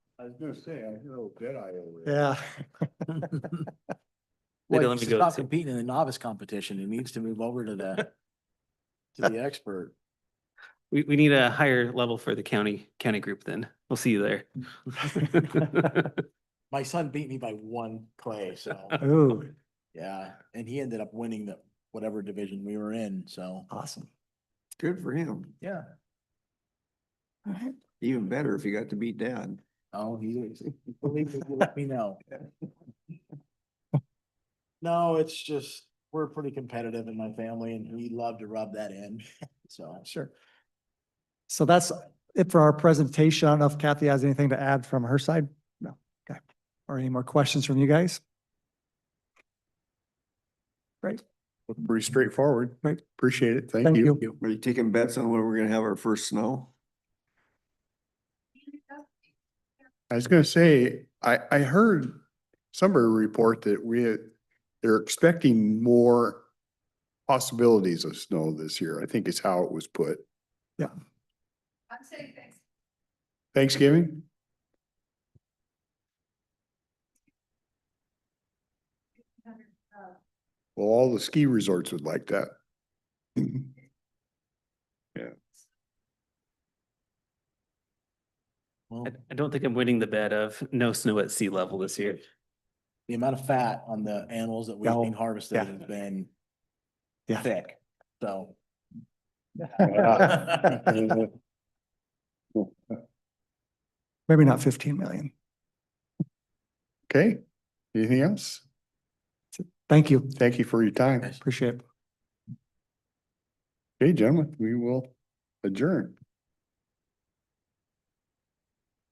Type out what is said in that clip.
I was gonna say, I hear old dead eye over there. Yeah. Wait, Well, let he's me go Not to- competing in the novice competition. He needs to move over to the, to the expert. We, we need a higher level for the county, county group then. We'll see you there. My son beat me by one clay, so, Ooh, yeah, and he ended up winning the, whatever division we were in, so. awesome. Good for him. Yeah. Even better if you got to beat dad. Oh, he, believe me, he let me know. No, it's just, we're pretty competitive in my family and we love to rub that in, so. Sure. So that's it for our presentation. I don't know if Kathy has anything to add from her side? No, okay. Or any more questions from you guys? Pretty straightforward. Right. Appreciate it. Thank you. Are you taking bets on when we're gonna have our first snow? I was gonna say, I, I heard somebody report that we, had- they're expecting more possibilities of snow this year, I think is how it was put. I'm saying thanks. Thanksgiving? Uh, Well, all the ski resorts would like that. Well, I I don't think I'm winning the bet of no snow at sea level this year. the amount of fat on the animals that we've Yeah, been harvested Oh, yeah. has been Yeah. thick, so. Maybe not fifteen million. Okay, anything else? Thank you. Thank you for your time. Appreciate it. Okay, gentlemen, we will adjourn.